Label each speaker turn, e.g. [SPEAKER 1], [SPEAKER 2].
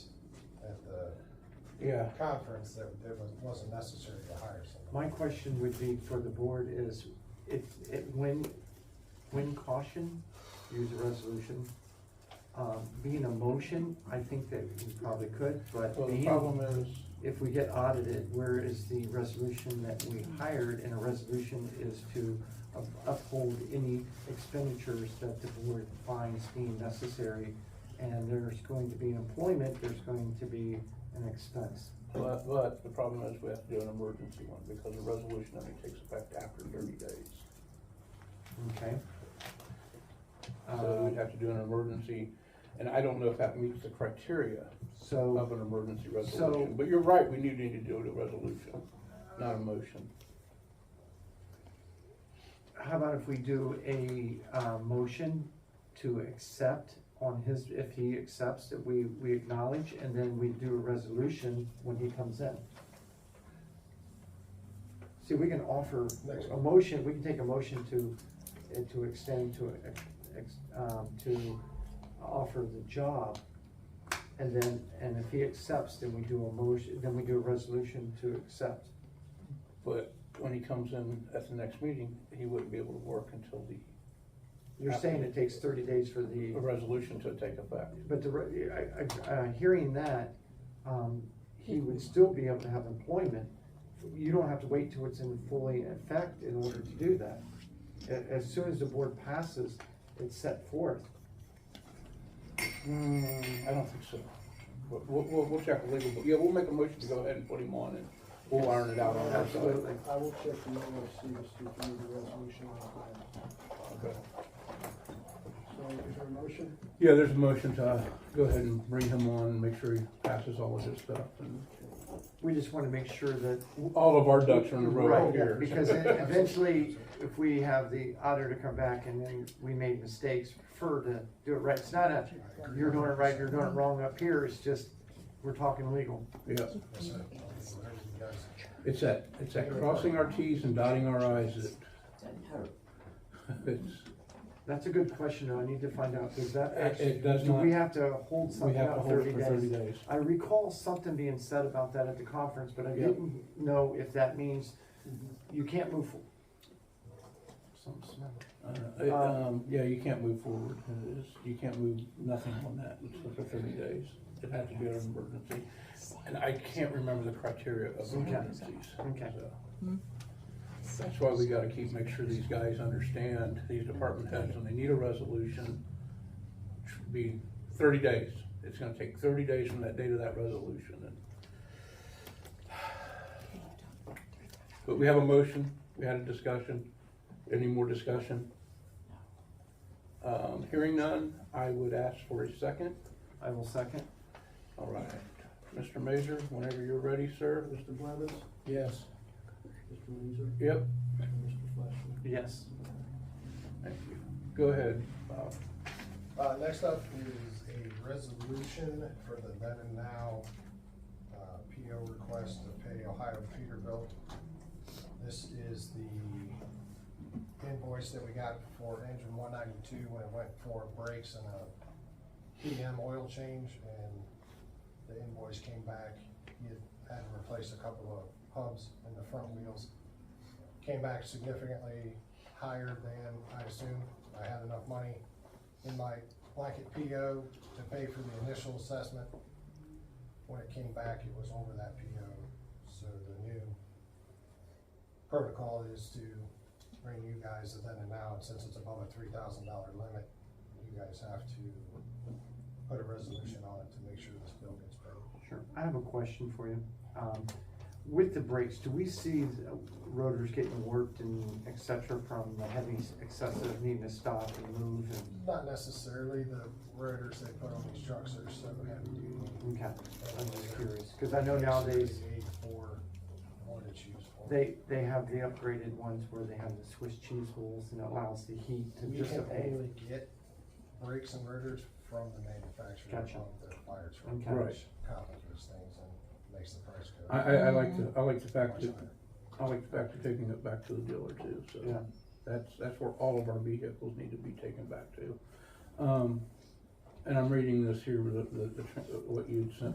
[SPEAKER 1] Yeah.
[SPEAKER 2] conference that it was- wasn't necessary to hire someone.
[SPEAKER 1] My question would be for the board is, if, if, when, when caution, use a resolution, um, being a motion, I think that we probably could, but
[SPEAKER 3] Well, the
[SPEAKER 1] being-
[SPEAKER 3] problem is,
[SPEAKER 1] if we get audited, where is the resolution that we hired? And a resolution is to up- uphold any expenditures that the board finds deemed necessary. And there's going to be an employment, there's going to be an expense.
[SPEAKER 3] but, but the problem is we have to do an emergency one because the resolution only takes effect after thirty days.
[SPEAKER 1] Okay.
[SPEAKER 3] So
[SPEAKER 1] Uh,
[SPEAKER 3] we'd have to do an emergency, and I don't know if that meets the criteria of
[SPEAKER 1] So,
[SPEAKER 3] an emergency
[SPEAKER 1] So-
[SPEAKER 3] resolution. But you're right, we do need to do a resolution, not a motion.
[SPEAKER 1] how about if we do a uh, motion to accept on his, if he accepts that we, we acknowledge, and then we do a resolution when he comes in? See, we can offer
[SPEAKER 2] Next
[SPEAKER 1] a
[SPEAKER 2] one.
[SPEAKER 1] motion, we can take a motion to, eh, to extend to, ex- um, to offer the job. And then, and if he accepts, then we do a motion, then we do a resolution to accept.
[SPEAKER 3] But when he comes in at the next meeting, he wouldn't be able to work until the
[SPEAKER 1] You're saying it takes thirty days for the.
[SPEAKER 3] a resolution to take effect.
[SPEAKER 1] But the, re- I, I, uh, hearing that, um, he would still be able to have employment. You don't have to wait till it's in fully effect in order to do that. A- as soon as the board passes, it's set forth.
[SPEAKER 3] Hmm, I don't think so. But We'll, we'll, we'll check the legal, but yeah, we'll make a motion to go ahead and put him on and we'll iron it out on our side.
[SPEAKER 1] Absolutely.
[SPEAKER 4] I will check the mail to see if we need the resolution on file.
[SPEAKER 3] Okay.
[SPEAKER 4] So is there a motion?
[SPEAKER 3] Yeah, there's a motion to go ahead and bring him on and make sure he passes all of his stuff and
[SPEAKER 1] We just wanna make sure that.
[SPEAKER 3] all of our ducks are in a row
[SPEAKER 1] Right,
[SPEAKER 3] here.
[SPEAKER 1] Because e- eventually, if we have the auditor come back and then we made mistakes, prefer to do it right. It's not a, you're doing it right, you're doing it wrong up here, it's just, we're talking legal.
[SPEAKER 3] Yeah,
[SPEAKER 2] That's it. Whatever you guys-
[SPEAKER 3] it's that, it's that crossing our Ts and dotting our Is
[SPEAKER 5] Doesn't hurt.
[SPEAKER 3] that, it's,
[SPEAKER 1] That's a good question, though, I need to find out, does that
[SPEAKER 3] It-
[SPEAKER 1] actually,
[SPEAKER 3] it does
[SPEAKER 1] do we
[SPEAKER 3] not-
[SPEAKER 1] have to hold
[SPEAKER 3] we
[SPEAKER 1] something
[SPEAKER 3] have to
[SPEAKER 1] out
[SPEAKER 3] hold
[SPEAKER 1] thirty
[SPEAKER 3] it for thirty
[SPEAKER 1] days?
[SPEAKER 3] days.
[SPEAKER 1] I recall something being said about that at the conference, but I
[SPEAKER 3] Yeah.
[SPEAKER 1] didn't know if that means you can't move. forward.
[SPEAKER 3] Uh, it, Um, yeah, you can't move forward, It is- you can't move nothing on that until for thirty days. It had to be an emergency, and I can't remember the criteria of
[SPEAKER 1] Okay.
[SPEAKER 3] emergencies.
[SPEAKER 1] Okay.
[SPEAKER 3] so. That's why we gotta keep, make sure these guys understand, these department heads, when they need a resolution, should be thirty days. It's gonna take thirty days from that date of that resolution, and But we have a motion, we had a discussion, any more discussion? Um, hearing none, I would ask for a second.
[SPEAKER 1] I will second.
[SPEAKER 3] All right, Mr. Mazur, whenever you're ready, sir.
[SPEAKER 4] Mr. Blevins?
[SPEAKER 3] Yes.
[SPEAKER 4] Mr. Windsor?
[SPEAKER 3] Yep,
[SPEAKER 4] And Mr. Fleishman?
[SPEAKER 1] Yes.
[SPEAKER 3] thank you. Go ahead, Bob.
[SPEAKER 2] Uh, next up is a resolution for the then and now, uh, PO request to pay Ohio Peterbilt. This is the invoice that we got for engine one ninety-two when it went for brakes and a PM oil change, and the invoice came back, he had had to replace a couple of hubs in the front wheels. Came back significantly higher than I assumed, I had enough money in my blanket PO to pay for the initial assessment. When it came back, it was over that PO, so the new protocol is to bring you guys the then and now, and since it's above a three thousand dollar limit, you guys have to put a resolution on it to make sure this bill gets paid.
[SPEAKER 1] Sure. I have a question for you. Um, with the brakes, do we see the rotors getting warped and et cetera from the heavy excessive needing to stop and move and,
[SPEAKER 2] Not necessarily the rotors they put on these trucks are so heavy duty.
[SPEAKER 1] okay, I'm just curious, cause I know nowadays
[SPEAKER 2] Eight for what it's used for.
[SPEAKER 1] They, they have the upgraded ones where they have the Swiss cheese holes and it allows the heat to
[SPEAKER 2] We
[SPEAKER 1] just
[SPEAKER 2] can
[SPEAKER 1] abate.
[SPEAKER 2] only get brakes and rotors from the manufacturer of
[SPEAKER 1] Gotcha.
[SPEAKER 2] the fire truck.
[SPEAKER 1] Okay.
[SPEAKER 3] Right.
[SPEAKER 2] which Complicates things and makes the price go.
[SPEAKER 3] I, I, I like the, I like the fact
[SPEAKER 2] much
[SPEAKER 3] that,
[SPEAKER 2] higher.
[SPEAKER 3] I like the fact of taking it back to the dealer too, so.
[SPEAKER 1] Yeah.
[SPEAKER 3] That's, that's where all of our vehicles need to be taken back to. Um, and I'm reading this here, the, the, the tr- what you'd sent